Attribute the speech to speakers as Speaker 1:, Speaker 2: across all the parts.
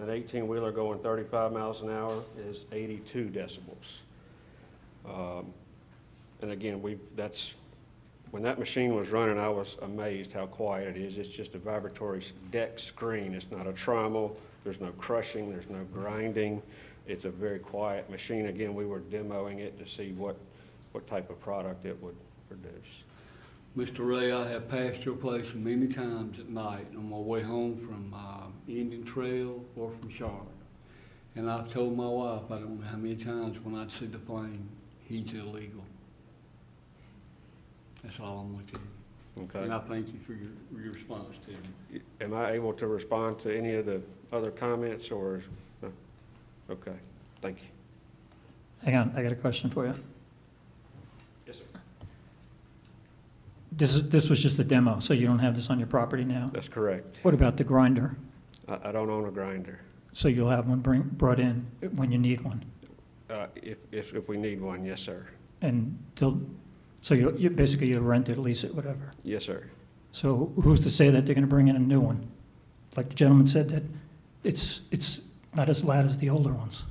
Speaker 1: an 18-wheeler going 35 miles an hour is 82 decibels. Um, And again, we, that's, when that machine was running, I was amazed how quiet it is. It's just a vibratory s- deck screen. It's not a trommel. There's no crushing, there's no grinding. It's a very quiet machine. Again, we were demoing it to see what, what type of product it would produce.
Speaker 2: Mr. Ray, I have passed your place many times at night on my way home from uh, Indian Trail or from Charlotte. And I've told my wife, I don't know how many times, when I'd see the flame, he's illegal. That's all I'm going to tell you. And I
Speaker 1: Okay?
Speaker 2: thank you for your, your response to me.
Speaker 1: Am I able to respond to any of the other comments or, no? okay, thank you.
Speaker 3: Hang on, I got a question for you.
Speaker 1: Yes, sir.
Speaker 3: This, is this was just a demo, so you don't have this on your property now?
Speaker 1: That's correct.
Speaker 3: What about the grinder?
Speaker 1: I, I don't own a grinder.
Speaker 3: So you'll have one bring, brought in when you need one?
Speaker 1: Uh, if, if, if we need one, yes, sir.
Speaker 3: And till, so you, you, basically you'll rent it, lease it, whatever.
Speaker 1: Yes, sir.
Speaker 3: So who's to say that they're gonna bring in a new one? Like the gentleman said, that it's, it's not as loud as the older ones.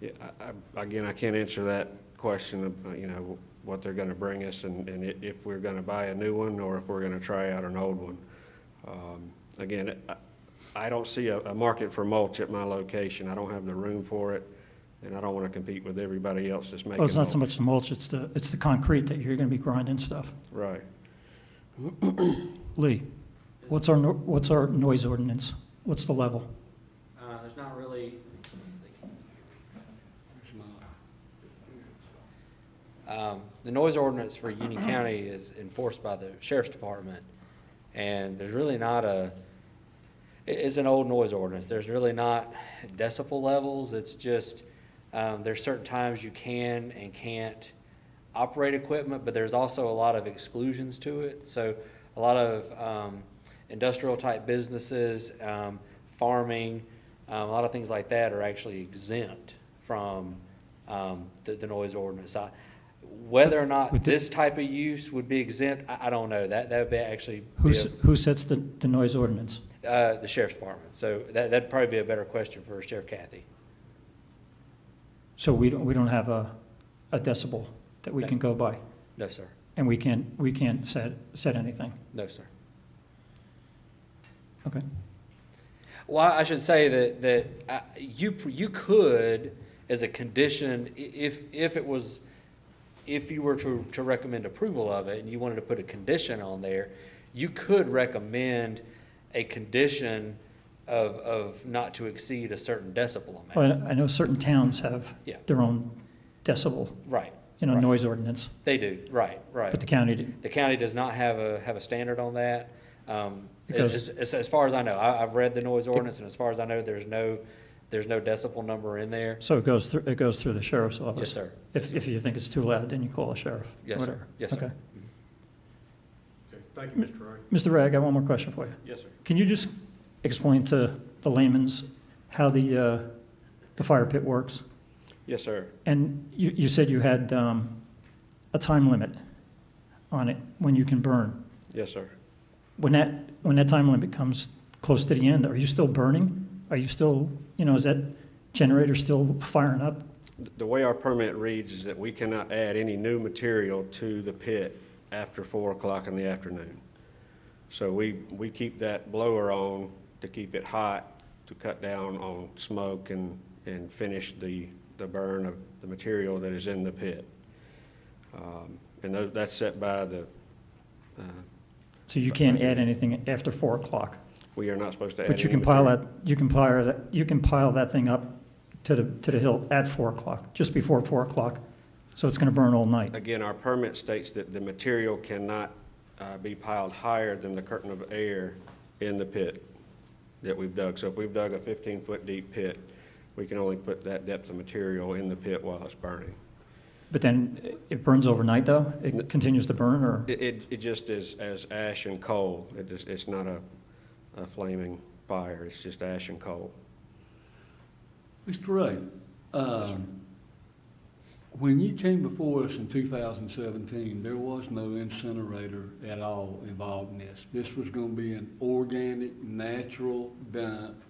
Speaker 1: Yeah, I, I, again, I can't answer that question of, uh, you know, what they're gonna bring us and, and i- if we're gonna buy a new one or if we're gonna try out an old one. Um, Again, I, I don't see a, a market for mulch at my location. I don't have the room for it and I don't wanna compete with everybody else that's making
Speaker 3: Well, Oh, it's not so
Speaker 1: mulch.
Speaker 3: much the mulch, it's the, it's the concrete that you're gonna be grinding stuff.
Speaker 1: Right.
Speaker 3: Lee, what's our, no- what's our noise ordinance? What's the level?
Speaker 4: Uh, there's not really,
Speaker 2: It's my-
Speaker 4: um, the noise ordinance for Union County is enforced by the sheriff's department. And there's really not a, i- it's an old noise ordinance. There's really not decibel levels. It's just, um, there's certain times you can and can't operate equipment, but there's also a lot of exclusions to it. So a lot of, um, industrial type businesses, um, farming, um, a lot of things like that are actually exempt from, um, the, the noise ordinance. I, whether or not
Speaker 3: With the-
Speaker 4: this type of use would be exempt, I, I don't know. That, that would be actually. be
Speaker 3: Who's,
Speaker 4: a-
Speaker 3: who sets the, the noise ordinance?
Speaker 4: uh, the sheriff's department. So that, that'd probably be a better question for Sheriff Kathy.
Speaker 3: So we don't, we don't have a, a decibel that we can go by,
Speaker 4: No, sir.
Speaker 3: and we can't, we can't set, set anything.
Speaker 4: No, sir.
Speaker 3: Okay.
Speaker 4: Well, I should say that, that uh, you, you could, as a condition, i- if, if it was, if you were to, to recommend approval of it and you wanted to put a condition on there, you could recommend a condition of, of not to exceed a certain decibel amount.
Speaker 3: Well, I know certain towns have
Speaker 4: Yeah.
Speaker 3: their own decibel,
Speaker 4: Right,
Speaker 3: you know,
Speaker 4: Right.
Speaker 3: noise ordinance,
Speaker 4: they do, right, right.
Speaker 3: but the county didn't.
Speaker 4: The county does not have a, have a standard on that. Um,
Speaker 3: Because-
Speaker 4: As, as- as far as I know, I, I've read the noise ordinance, and as far as I know, there's no, there's no decibel number in there.
Speaker 3: So it goes through, it goes through the sheriff's office?
Speaker 4: Yes, sir.
Speaker 3: If, if you think it's too loud, then you call the sheriff?
Speaker 4: Yes, sir.
Speaker 3: whatever.
Speaker 4: Yes, sir.
Speaker 3: Okay.
Speaker 1: Okay, thank you, Mr. Roy.
Speaker 3: Mr. Ray, I got one more question for you.
Speaker 1: Yes, sir.
Speaker 3: Can you just explain to the layman's how the, uh, the fire pit works?
Speaker 1: Yes, sir.
Speaker 3: And you, you said you had um, a time limit on it when you can burn.
Speaker 1: Yes, sir.
Speaker 3: When that, when that time limit comes close to the end, are you still burning? Are you still, you know, is that generator still firing up?
Speaker 1: The way our permit reads is that we cannot add any new material to the pit after four o'clock in the afternoon. So we, we keep that blower on to keep it hot, to cut down on smoke and, and finish the, the burn of the material that is in the pit. Um, And tho- that's set by the, uh,
Speaker 3: So you can't add anything after four o'clock?
Speaker 1: we are not supposed to add any.
Speaker 3: But you can pile
Speaker 1: material.
Speaker 3: that, you can pile that, you can pile that thing up to the, to the hill at four o'clock, just before four o'clock. So it's gonna burn all night.
Speaker 1: Again, our permit states that the material cannot uh, be piled higher than the curtain of air in the pit that we've dug. So if we've dug a 15-foot deep pit, we can only put that depth of material in the pit while it's burning.
Speaker 3: But then it burns overnight though? It continues to burn or?
Speaker 1: It- It, it just is as ash and coal. It is, it's not a a flaming fire, it's just ash and coal.
Speaker 2: Mr. Ray, um, when you came before us in 2017, there was no incinerator at all involved in this. This was going to be an organic, natural dump